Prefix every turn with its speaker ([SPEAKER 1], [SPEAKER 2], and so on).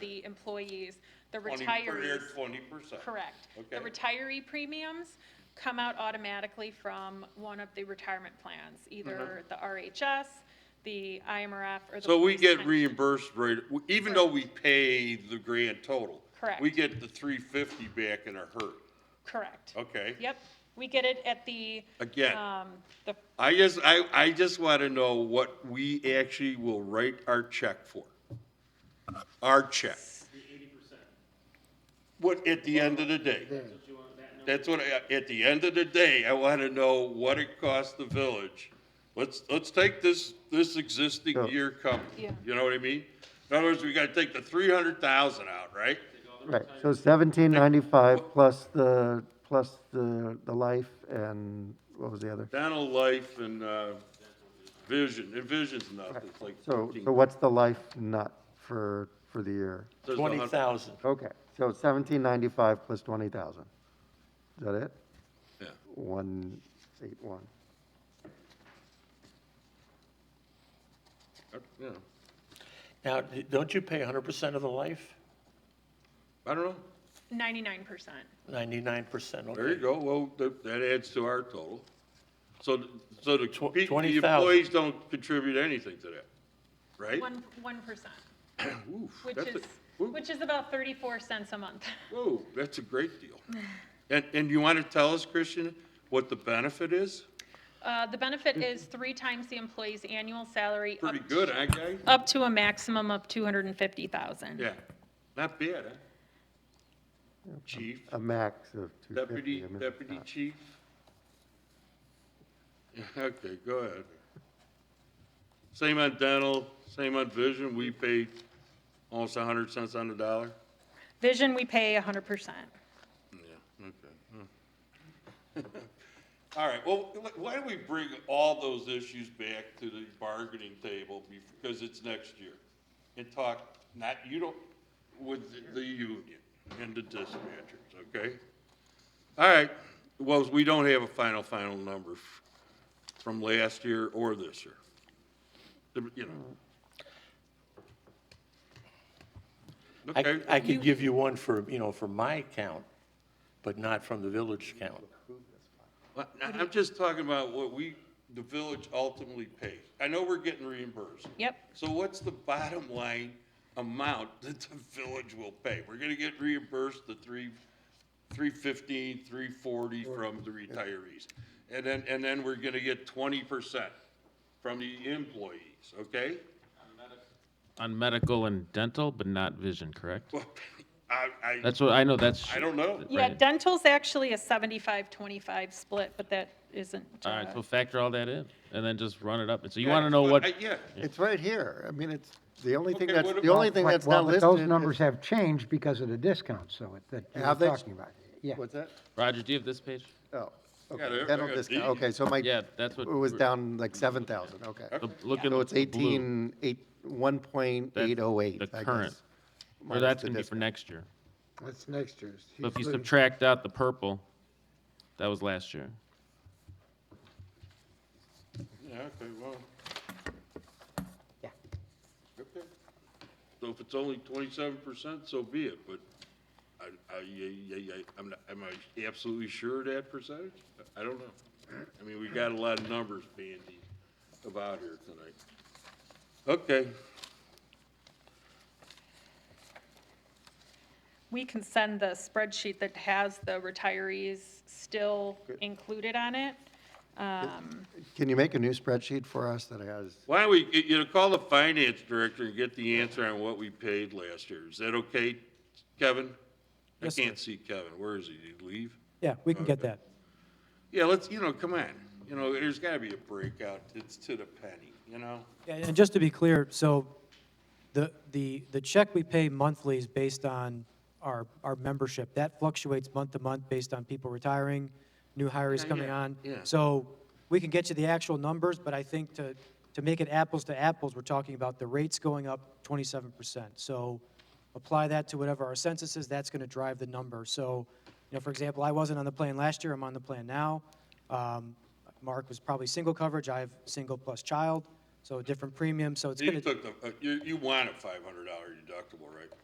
[SPEAKER 1] the employees, the
[SPEAKER 2] Twenty per year,
[SPEAKER 1] retirees.
[SPEAKER 2] twenty percent.
[SPEAKER 1] Correct. The
[SPEAKER 2] Okay.
[SPEAKER 1] retiree premiums come out automatically from one of the retirement plans, either the RHS, the IMRF, or the.
[SPEAKER 2] Uh-huh. So we
[SPEAKER 1] police
[SPEAKER 2] get
[SPEAKER 1] pension.
[SPEAKER 2] reimbursed right, even though we pay the grand total.
[SPEAKER 1] Correct.
[SPEAKER 2] We get the three fifty back in our hurt.
[SPEAKER 1] Correct.
[SPEAKER 2] Okay.
[SPEAKER 1] Yep, we get it at the.
[SPEAKER 2] Again.
[SPEAKER 1] Um, the,
[SPEAKER 2] I just, I, I just want to know what we actually will write our check for. Our check. What, at the end of the day? That's what, I- at the end of the day, I want to know what it costs the village. Let's, let's take this, this existing year company,
[SPEAKER 1] Yeah.
[SPEAKER 2] you know what I mean? In other words, we got to take the three hundred thousand out, right?
[SPEAKER 3] Right, so seventeen ninety-five plus the, plus the, the life and what was the other?
[SPEAKER 2] Dental life and, uh, vision, and vision's nothing, it's like
[SPEAKER 3] So,
[SPEAKER 2] fifteen.
[SPEAKER 3] so what's the life nut for, for the year?
[SPEAKER 2] There's a hun-
[SPEAKER 4] Twenty thousand.
[SPEAKER 3] Okay, so seventeen ninety-five plus twenty thousand. Is that it?
[SPEAKER 2] Yeah.
[SPEAKER 3] One, eight, one.
[SPEAKER 2] Yeah.
[SPEAKER 4] Now, d- don't you pay hundred percent of the life?
[SPEAKER 2] I don't know.
[SPEAKER 1] ninety-nine percent.
[SPEAKER 4] Ninety-nine percent, okay.
[SPEAKER 2] There you go, well, that, that adds to our total. So, th- so the,
[SPEAKER 4] Tw-
[SPEAKER 2] pe- the
[SPEAKER 4] 20,000.
[SPEAKER 2] employees don't contribute anything to that, right?
[SPEAKER 1] One, one percent,
[SPEAKER 2] Oof,
[SPEAKER 1] which
[SPEAKER 2] that's a-
[SPEAKER 1] is,
[SPEAKER 2] woo-
[SPEAKER 1] which is about thirty-four cents a month.
[SPEAKER 2] Whoa, that's a great deal. And, and you want to tell us, Christian, what the benefit is?
[SPEAKER 1] Uh, the benefit is three times the employee's annual salary. up
[SPEAKER 2] Hmm. Pretty good, eh, I guess.
[SPEAKER 1] Up to a maximum of two hundred and fifty thousand.
[SPEAKER 2] Yeah, not bad, huh? Chief,
[SPEAKER 3] A max of two fifty. uh,
[SPEAKER 2] deputy, deputy chief? Okay, go ahead. Same on dental, same on vision, we pay almost a hundred cents on the dollar?
[SPEAKER 1] Vision, we pay hundred percent.
[SPEAKER 2] Yeah, okay. hmm. All right, well, wh- why don't we bring all those issues back to the bargaining table, bef- because it's next year? And talk, not, you don't, with the- the union and the dispatchers, okay? All right, well, we don't have a final, final number f- from last year or this year. The- You know.
[SPEAKER 4] I,
[SPEAKER 2] Okay,
[SPEAKER 4] I could give you one for, you know, for my account, but not from the village count.
[SPEAKER 2] Well, I- I'm just talking about what we, the village ultimately pays. I know we're getting reimbursed.
[SPEAKER 1] Yep.
[SPEAKER 2] So what's the bottom line amount that the village will pay? We're gonna get reimbursed the three, three fifteen, three forty from the retirees. And then, and then we're gonna get twenty percent from the employees, okay?
[SPEAKER 5] on medical and dental, but not vision, correct?
[SPEAKER 2] Well, I, I,
[SPEAKER 5] That's what, I know, that's.
[SPEAKER 2] I don't know.
[SPEAKER 1] Yeah,
[SPEAKER 5] Right.
[SPEAKER 1] dental's actually a 75-25 split, but that isn't.
[SPEAKER 5] All right,
[SPEAKER 1] uh,
[SPEAKER 5] so factor all that in, and then just run it up, and so you wanna know what,
[SPEAKER 2] I- Yeah,
[SPEAKER 3] It's right here. I mean, it's, the only thing
[SPEAKER 2] Okay,
[SPEAKER 3] that's,
[SPEAKER 2] what
[SPEAKER 3] the only
[SPEAKER 2] about-
[SPEAKER 3] thing
[SPEAKER 6] Well,
[SPEAKER 3] that's not
[SPEAKER 6] well, but
[SPEAKER 3] listed.
[SPEAKER 6] Those numbers have changed because of the discounts, so it- that you
[SPEAKER 3] Have they?
[SPEAKER 6] were talking about. Yeah,
[SPEAKER 3] What's that?
[SPEAKER 5] Roger, do you have this page?
[SPEAKER 3] Oh,
[SPEAKER 2] Yeah,
[SPEAKER 3] okay,
[SPEAKER 2] they're-
[SPEAKER 3] dental
[SPEAKER 2] they're
[SPEAKER 3] discount,
[SPEAKER 2] deep.
[SPEAKER 3] okay, so my,
[SPEAKER 5] Yeah,
[SPEAKER 3] it
[SPEAKER 5] that's what.
[SPEAKER 3] was
[SPEAKER 5] we're-
[SPEAKER 3] down like seven thousand, okay.
[SPEAKER 5] the- Look at
[SPEAKER 3] So it's
[SPEAKER 5] the blue.
[SPEAKER 3] eighteen, eight, one point
[SPEAKER 5] That's
[SPEAKER 3] eight oh eight,
[SPEAKER 5] The
[SPEAKER 3] I
[SPEAKER 5] current,
[SPEAKER 3] guess.
[SPEAKER 5] or
[SPEAKER 3] minus
[SPEAKER 5] that's
[SPEAKER 3] the
[SPEAKER 5] gonna be for
[SPEAKER 3] discount.
[SPEAKER 5] next year.
[SPEAKER 6] that's next year's.
[SPEAKER 5] But if you
[SPEAKER 6] He's looking-
[SPEAKER 5] subtract out the purple, that was last year.
[SPEAKER 2] yeah, okay, well.
[SPEAKER 6] Yeah.
[SPEAKER 2] Okay. So if it's only twenty-seven percent, so be it, but I, I, I, I, I- I'm not, am I absolutely sure of that percentage? I don't know. I mean, we got a lot of numbers bandied about here tonight. Okay,
[SPEAKER 1] We can send the spreadsheet that has the retirees still included on it. Um,
[SPEAKER 3] Can you make a new spreadsheet for us that has,
[SPEAKER 2] why don't we, you know, call the finance director and get the answer on what we paid last year. Is that okay, Kevin? I
[SPEAKER 7] Yes, sir.
[SPEAKER 2] can't see Kevin. Where is he? Did he leave?
[SPEAKER 7] Yeah, we can get that.
[SPEAKER 2] Yeah, let's, you know, come on, you know, there's gotta be a breakout, it's to the penny, you know?
[SPEAKER 7] Yeah, And just to be clear, so the, the, the check we pay monthly is based on our, our membership. That fluctuates month to month based on people retiring, new hires
[SPEAKER 2] Yeah,
[SPEAKER 7] coming
[SPEAKER 2] yeah,
[SPEAKER 7] on.
[SPEAKER 2] yeah.
[SPEAKER 7] So we can get you the actual numbers, but I think to, to make it apples to apples, we're talking about the rates going up twenty-seven percent. So apply that to whatever our census is, that's gonna drive the number. So, you know, for example, I wasn't on the plan last year, I'm on the plan now. Um, Mark was probably single coverage, I have single plus child, so different premium, so it's
[SPEAKER 2] You
[SPEAKER 7] gonna.
[SPEAKER 2] took the, uh, you, you want a five hundred dollar deductible, right?